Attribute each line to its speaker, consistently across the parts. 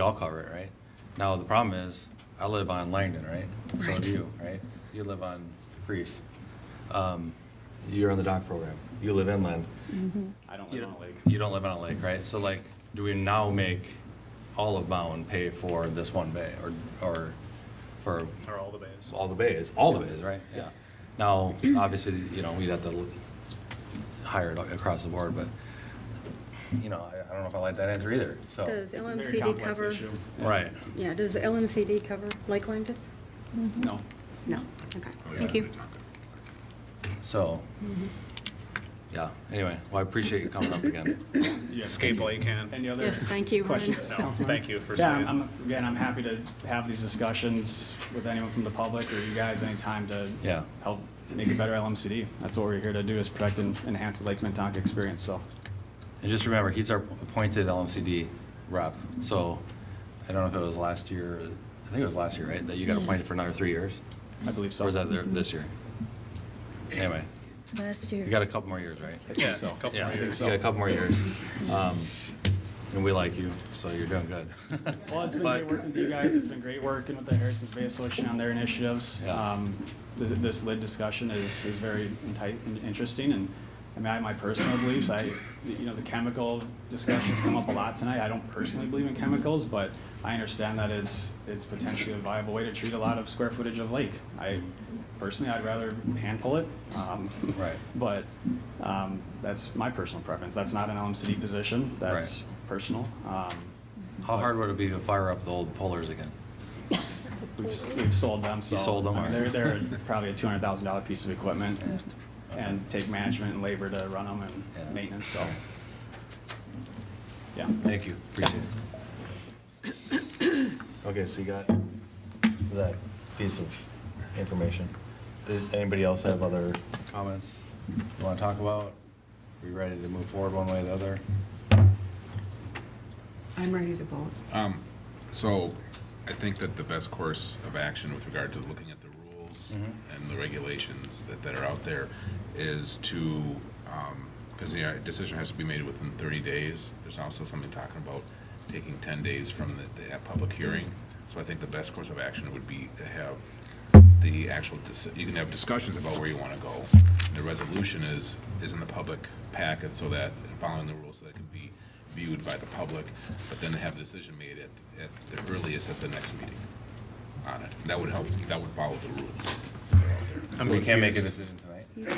Speaker 1: all cover it, right? Now, the problem is, I live on Langdon, right? So
Speaker 2: Right.
Speaker 1: do you, right? You live on Priest. Um, You're on the dock program. You live inland.
Speaker 2: Mm-hmm.
Speaker 3: I don't
Speaker 1: You
Speaker 3: live on
Speaker 1: don't-
Speaker 3: a lake.
Speaker 1: You don't live on a lake, right? So like, do we now make all of Bowen pay for this one bay or, or for
Speaker 3: Or all the bays.
Speaker 1: all the bays, all the bays, right? Yeah. Now, obviously, you know, we'd have to hire it across the board, but, you know, I, I don't know if I like that answer either, so.
Speaker 2: Does
Speaker 3: It's a very
Speaker 2: LMCD
Speaker 3: complex
Speaker 2: cover?
Speaker 3: issue.
Speaker 1: Right.
Speaker 2: Yeah, does LMCD cover Lake Langdon? Mm-hmm.
Speaker 3: No.
Speaker 2: No, okay, thank you.
Speaker 1: So, yeah, anyway, well, I appreciate you coming up again.
Speaker 3: Escape Lake can. Any other?
Speaker 2: Yes, thank you, Ryan.
Speaker 3: Questions? No,
Speaker 2: Councilman?
Speaker 3: thank you for
Speaker 4: Yeah,
Speaker 3: saying.
Speaker 4: I'm- I'm, again, I'm happy to have these discussions with anyone from the public or you guys anytime to
Speaker 1: Yeah.
Speaker 4: help make a better LMCD. That's what we're here to do is protect and enhance the Lake Minnetonka experience, so.
Speaker 1: And just remember, he's our appointed LMCD rep, so I don't know if it was last year, I think it was last year, right, that you got appointed for another three years?
Speaker 4: I believe so.
Speaker 1: Or was that there- this year? Anyway,
Speaker 5: Last
Speaker 1: you
Speaker 5: year.
Speaker 1: got a couple more years, right?
Speaker 4: I think so.
Speaker 3: couple
Speaker 1: Yeah,
Speaker 3: more
Speaker 1: you
Speaker 3: years.
Speaker 1: got a couple more years. Um, And we like you, so you're doing good.
Speaker 4: Well, it's been
Speaker 1: But-
Speaker 4: great working with you guys. It's been great working with the Harrison's Bay Association on their initiatives.
Speaker 1: Yeah.
Speaker 4: Um, This, this lid discussion is, is very enti- interesting and, I mean, I, my personal beliefs, I, you know, the chemical discussions come up a lot tonight. I don't personally believe in chemicals, but I understand that it's, it's potentially a viable way to treat a lot of square footage of lake. I, personally, I'd rather hand pull it. um,
Speaker 1: Right.
Speaker 4: But, um, that's my personal preference. That's not an LMCD position. That's personal. Um,
Speaker 1: How hard would it be to fire up the old pullers again?
Speaker 4: We've, s- we've sold them, so.
Speaker 1: sold them,
Speaker 4: I mean, They're,
Speaker 1: alright.
Speaker 4: they're probably a two hundred thousand dollar piece of equipment and take management and labor to run them
Speaker 1: Yeah.
Speaker 4: and maintenance, so. Yeah.
Speaker 1: Thank you, appreciate it. Okay, so you got that piece of information. Did anybody else have other comments you want to talk about? Are you ready to move forward one way or the other?
Speaker 6: I'm ready to vote.
Speaker 7: So I think that the best course of action with regard to looking at the rules and the regulations that, that are out there is to, because the uh, decision has to be made within 30 days. There's also something talking about taking 10 days from the, the public hearing. So I think the best course of action would be to have the actual, dis- you can have discussions about where you want to go. The resolution is, is in the public packet so that, following the rules, so that it can be viewed by the public, but then have the decision made at, at the earliest at the next meeting on it. That would help, that would follow the rules.
Speaker 1: I mean, we can't make a decision tonight.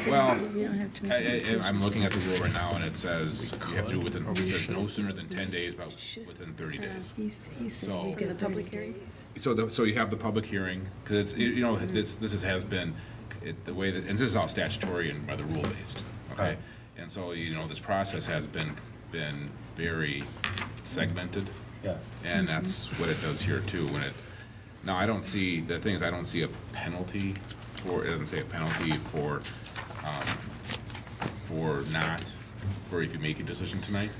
Speaker 7: Well,
Speaker 5: We don't have to make
Speaker 7: I,
Speaker 5: a
Speaker 7: I,
Speaker 5: decision.
Speaker 7: I'm looking at the rule right now, and it says you have to do it within, it says no sooner than ten days, but within thirty days.
Speaker 5: He's, he said
Speaker 7: So-
Speaker 5: we
Speaker 7: For the
Speaker 5: did thirty
Speaker 2: public hearing?
Speaker 5: days.
Speaker 7: So, the, so you have the public hearing, because it's, you know, this, this is- has been, it, the way that, and this is all statutory and by the rule based,
Speaker 1: Right.
Speaker 7: okay? And so, you know, this process has been, been very segmented.
Speaker 1: Yeah.
Speaker 7: And that's what it does here too, when it, now, I don't see, the thing is, I don't see a penalty for, it doesn't say a penalty for, um, for not, for if you make a decision tonight.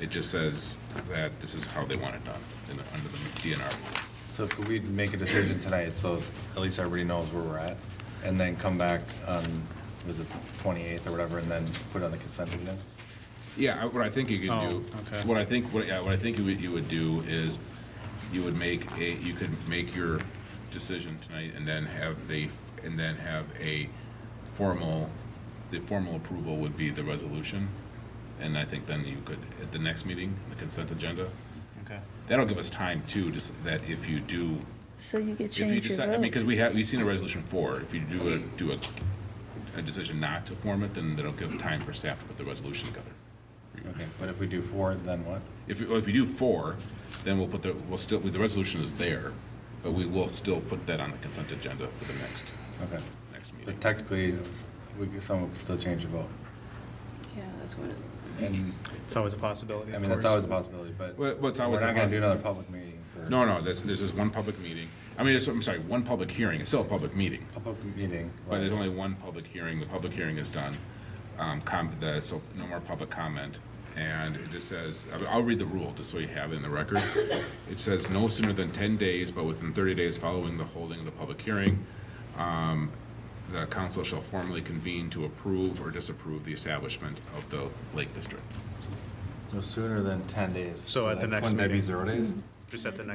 Speaker 7: It just says that this is how they want it done, in the, under the DNR rules.
Speaker 1: So could we make a decision tonight, so at least everybody knows where we're at? And then come back on, was it 28th or whatever, and then put it on the consent agenda?
Speaker 7: Yeah, I- what I think you
Speaker 3: Oh,
Speaker 7: could do,
Speaker 3: okay.
Speaker 7: what I think, what, yeah, what I think you would, you would do is, you would make a, you could make your decision tonight and then have the, and then have a formal, the formal approval would be the resolution. And I think then you could, at the next meeting, the consent agenda,
Speaker 3: Okay.
Speaker 7: that'll give us time too, just that if you do,
Speaker 5: So you could
Speaker 7: if you
Speaker 5: change your
Speaker 7: decide, I mean, because
Speaker 5: vote.
Speaker 7: we have, we've seen a resolution for, if you do a, do a, a decision not to form it, then that'll give time for staff to put the resolution together.
Speaker 1: Okay, but if we do four, then what?
Speaker 7: If, you- if you do four, then we'll put the, we'll still, the resolution is there, but we will still put that on the consent agenda for the next,
Speaker 1: Okay.
Speaker 7: next
Speaker 1: But
Speaker 7: meeting.
Speaker 1: technically, we could- someone could still change the vote.
Speaker 2: Yeah, that's what it,
Speaker 1: And,
Speaker 3: It's always a possibility,
Speaker 1: I
Speaker 3: of
Speaker 1: mean, that's
Speaker 3: course.
Speaker 1: always a possibility, but
Speaker 7: Well,
Speaker 1: we're
Speaker 7: well,
Speaker 1: not
Speaker 7: it's always a
Speaker 1: gonna do
Speaker 7: possi-
Speaker 1: another public meeting for.
Speaker 7: No, no, there's, there's just one public meeting. I mean, it's- I'm sorry, one public hearing, it's still a public meeting,
Speaker 1: Public meeting.
Speaker 7: but there's only one public hearing, the public hearing is done. Um, com, the, so no more public comment. And it just says, I- I'll read the rule, just so you have it in the record. It says no sooner than ten days, but within thirty days following the holding of the public hearing, um, The council shall formally convene to approve or disapprove the establishment of the Lake District.
Speaker 1: No sooner than ten days.
Speaker 3: So at the
Speaker 1: that
Speaker 3: next
Speaker 1: Wouldn't that be
Speaker 3: meeting.
Speaker 1: zero days?
Speaker 3: just at the next